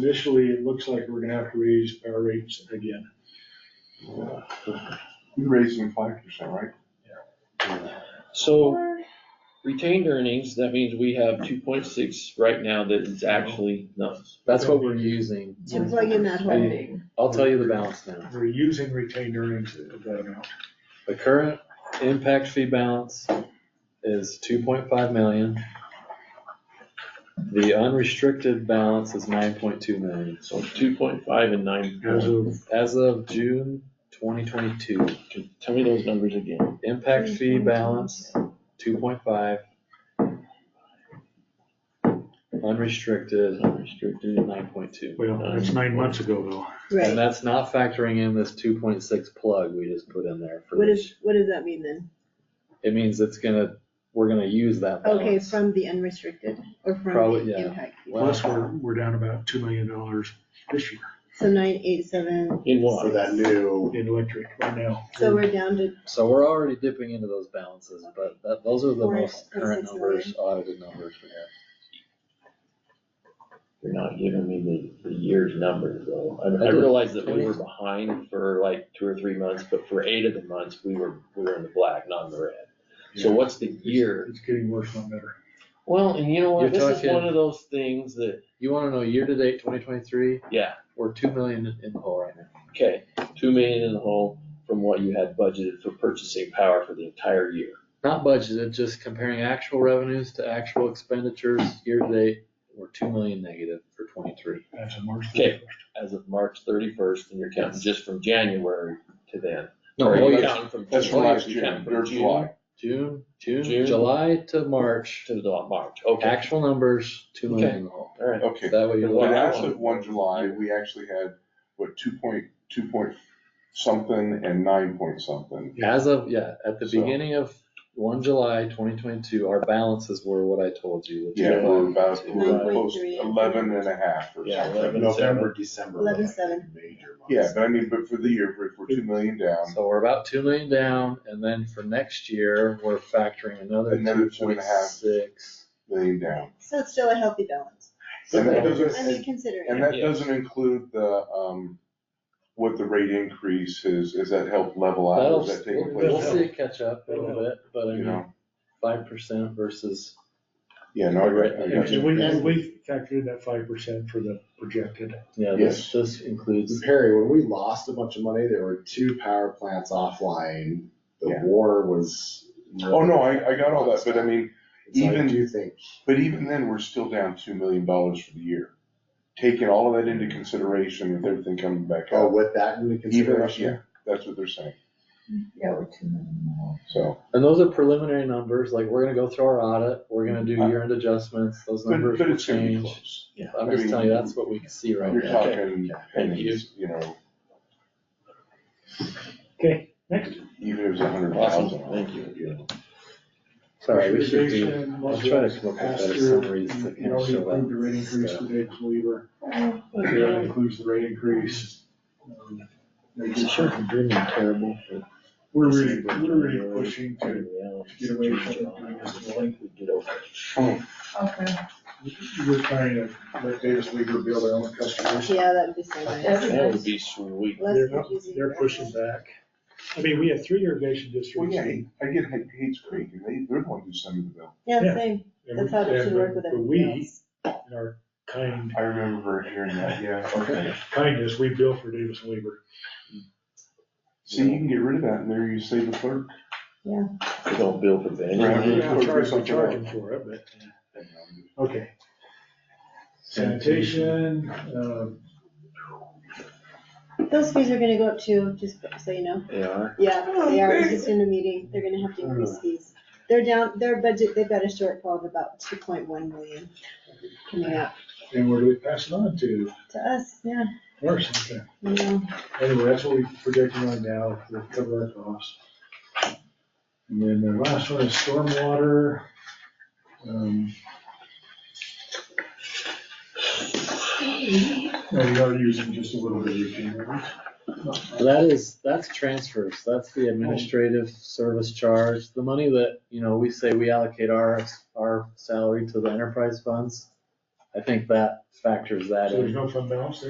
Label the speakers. Speaker 1: initially, it looks like we're gonna have to raise our rates again.
Speaker 2: You raised them Uh, five percent, right?
Speaker 3: So retained earnings, that means we have two point six right now that is actually nothing.
Speaker 4: That's what we're using.
Speaker 5: To plug in that hole.
Speaker 4: Hey, I'll tell you the balance now.
Speaker 1: We're using retained earnings of that amount.
Speaker 4: The current impact fee balance is two point five million. The unrestricted balance is nine point two million.
Speaker 3: So two point five and nine.
Speaker 1: As of,
Speaker 4: As of June twenty twenty-two,
Speaker 3: Tell me those numbers again.
Speaker 4: impact fee balance, two point five. Unrestricted,
Speaker 3: Unrestricted.
Speaker 4: nine point two.
Speaker 1: well, that's nine months ago though.
Speaker 4: And
Speaker 5: Right,
Speaker 4: that's not factoring in this two point six plug we just put in there for
Speaker 5: what
Speaker 4: this.
Speaker 5: is, what does that mean then?
Speaker 4: It means it's gonna, we're gonna use that
Speaker 5: Okay,
Speaker 4: balance.
Speaker 5: from the unrestricted or from
Speaker 4: Uh, Probably,
Speaker 5: the
Speaker 4: yeah.
Speaker 5: impact fee?
Speaker 4: Well-
Speaker 1: Plus, we're, we're down about two million dollars this year
Speaker 5: So nine eight seven,
Speaker 3: In
Speaker 6: For
Speaker 3: what?
Speaker 6: that new,
Speaker 1: in electric right now.
Speaker 5: so we're down to,
Speaker 4: So we're already dipping into those balances, but that, those are the
Speaker 5: Four,
Speaker 4: most
Speaker 5: or
Speaker 4: current
Speaker 5: six
Speaker 4: numbers, audited numbers we have.
Speaker 3: You're not giving me the, the year's numbers though. I- I
Speaker 4: I did.
Speaker 3: realize that we were behind for like two or three months, but for eight of the months, we were, we were in the black, not in the red. So
Speaker 1: Yeah.
Speaker 3: what's the year?
Speaker 1: It's getting worse, not better.
Speaker 3: Well, and you know what?
Speaker 4: You're
Speaker 3: This is
Speaker 4: talking-
Speaker 3: one of those things that,
Speaker 4: You wanna know year-to-date twenty twenty-three,
Speaker 3: yeah,
Speaker 4: we're two million in the hole right now.
Speaker 3: okay, two million in the hole from what you had budgeted for purchasing power for the entire year.
Speaker 4: Not budgeted, just comparing actual revenues to actual expenditures, year-to-date, we're two million negative for twenty-three.
Speaker 1: That's a March
Speaker 3: Okay.
Speaker 1: thirty-first.
Speaker 3: as of March thirty-first, and you're counting just from January to then.
Speaker 4: No,
Speaker 3: Or
Speaker 4: whole
Speaker 3: you're
Speaker 4: year.
Speaker 3: counting from
Speaker 2: That's from
Speaker 3: June,
Speaker 2: last
Speaker 3: you're
Speaker 2: year,
Speaker 3: counting from
Speaker 2: or
Speaker 3: June
Speaker 2: July.
Speaker 4: June, June,
Speaker 3: June.
Speaker 4: July to March,
Speaker 3: To the March, okay,
Speaker 4: actual numbers, two million
Speaker 3: Okay.
Speaker 4: in the hole.
Speaker 3: all right.
Speaker 4: Is
Speaker 2: Okay,
Speaker 4: that what you're
Speaker 3: But
Speaker 2: but
Speaker 4: looking at?
Speaker 2: as of one July, we actually had, what, two point, two point something and nine point something.
Speaker 4: As of, yeah, at the
Speaker 2: So-
Speaker 4: beginning of one July twenty twenty-two, our balances were what I told you. the
Speaker 2: Yeah,
Speaker 4: 2.5.
Speaker 2: we're about, we're close
Speaker 5: 9.3.
Speaker 2: eleven and a half or
Speaker 3: Yeah,
Speaker 2: something.
Speaker 3: eleven.
Speaker 6: November, December. were
Speaker 5: Eleven
Speaker 6: like
Speaker 5: seven.
Speaker 6: Major months.
Speaker 2: Yeah, but I mean, but for the year, if we're two million down,
Speaker 4: So we're about two million down, and then for next year, we're factoring another
Speaker 2: Another
Speaker 4: two
Speaker 2: two and
Speaker 4: point
Speaker 2: a half.
Speaker 4: six.
Speaker 2: million down.
Speaker 5: so it's still a healthy balance.
Speaker 2: And that
Speaker 5: I mean,
Speaker 2: doesn't, and
Speaker 5: considering,
Speaker 2: that doesn't include the, um, what the rate increase is, is that help level out,
Speaker 4: That'll,
Speaker 2: is that taking
Speaker 4: we'll
Speaker 2: place?
Speaker 4: see it catch up a little bit, but I
Speaker 2: You
Speaker 4: mean,
Speaker 2: know,
Speaker 4: five percent versus,
Speaker 2: yeah, no, I got- I got
Speaker 1: And
Speaker 2: you.
Speaker 1: we, and we factored that five percent for the projected.
Speaker 4: yeah, this, this includes,
Speaker 6: Perry, when we lost a bunch of money, there were two power plants offline. The
Speaker 2: Yeah.
Speaker 6: war was.
Speaker 2: Oh, no, I, I got all that, but I mean,
Speaker 6: So I
Speaker 2: even-
Speaker 6: do think,
Speaker 2: But even then, we're still down two million dollars for the year. Taking all of that into consideration with everything coming back
Speaker 6: oh,
Speaker 2: up,
Speaker 6: with that into
Speaker 2: even,
Speaker 6: consideration,
Speaker 2: yeah, that's what they're saying,
Speaker 7: Yeah, we're two million miles.
Speaker 2: so.
Speaker 4: and those are preliminary numbers, like, we're gonna go through our audit, we're gonna do year-end adjustments, those
Speaker 2: But,
Speaker 4: numbers
Speaker 2: but
Speaker 4: will
Speaker 2: it's gonna be
Speaker 4: change.
Speaker 2: close.
Speaker 4: I'm just telling you, that's what we can see right
Speaker 2: You're
Speaker 4: now.
Speaker 2: talking pennies, you know,
Speaker 1: Okay, next.
Speaker 2: even if it was a hundred
Speaker 3: Awesome,
Speaker 2: thousand.
Speaker 3: thank you.
Speaker 4: Sorry, we should do.
Speaker 1: Conservation,
Speaker 4: I'll try to come up with
Speaker 1: last
Speaker 4: better
Speaker 1: year,
Speaker 4: summaries to
Speaker 1: you-
Speaker 4: kinda
Speaker 1: You
Speaker 4: show
Speaker 1: already approved the
Speaker 4: that
Speaker 1: rate increase
Speaker 4: stuff.
Speaker 1: today, believer. That includes the rate increase. Um, they just-
Speaker 3: terrible for.
Speaker 1: We're really, we're really pushing to get away from doing this billing.
Speaker 7: Okay,
Speaker 1: We're trying to let Davis League build their own customers.
Speaker 5: yeah, that'd be so nice.
Speaker 7: That's-
Speaker 3: That would be sweet.
Speaker 5: Less
Speaker 1: They're-
Speaker 5: confusing.
Speaker 1: They're pushing back. I mean, we have three irrigation districts.
Speaker 2: Well, yeah, I get Hay- Hayes Creek, and they, they're the ones who send me the bill.
Speaker 5: Yeah,
Speaker 1: Yeah.
Speaker 5: same,
Speaker 1: and we-
Speaker 5: that's how they should
Speaker 1: and
Speaker 5: work with
Speaker 1: but
Speaker 5: everything else.
Speaker 1: We, in our kind,
Speaker 2: I remember hearing that, yeah, okay.
Speaker 1: kindness, we bill for Davis Leaver.
Speaker 2: See, you can get rid of that, and there you save the clerk.
Speaker 3: They don't bill for
Speaker 2: Right.
Speaker 3: that.
Speaker 2: Yeah,
Speaker 1: We're
Speaker 2: we're
Speaker 1: charging, we're
Speaker 2: charging
Speaker 1: charging for it, but, okay. Sanitation, um,
Speaker 5: Those fees are gonna go up too, just so you know.
Speaker 3: They are.
Speaker 5: Yeah, they are, just in a meeting, they're gonna have to
Speaker 1: Uh.
Speaker 5: increase fees. They're down, their budget, they've got a shortfall of about two point one million coming up
Speaker 1: and where do we pass it on to?
Speaker 5: to us, yeah,
Speaker 1: Or something.
Speaker 5: you know.
Speaker 1: Anyway, that's what we're projecting on now, to cover our costs. And then the last one is stormwater. Um, No, we are using just a little bit of routine, right?
Speaker 4: That is, that's transfers, that's the administrative service charge, the money that, you know, we say we allocate our, our salary to the enterprise funds.
Speaker 8: I think that factors that
Speaker 4: So
Speaker 8: in.
Speaker 4: there's no fund balance there?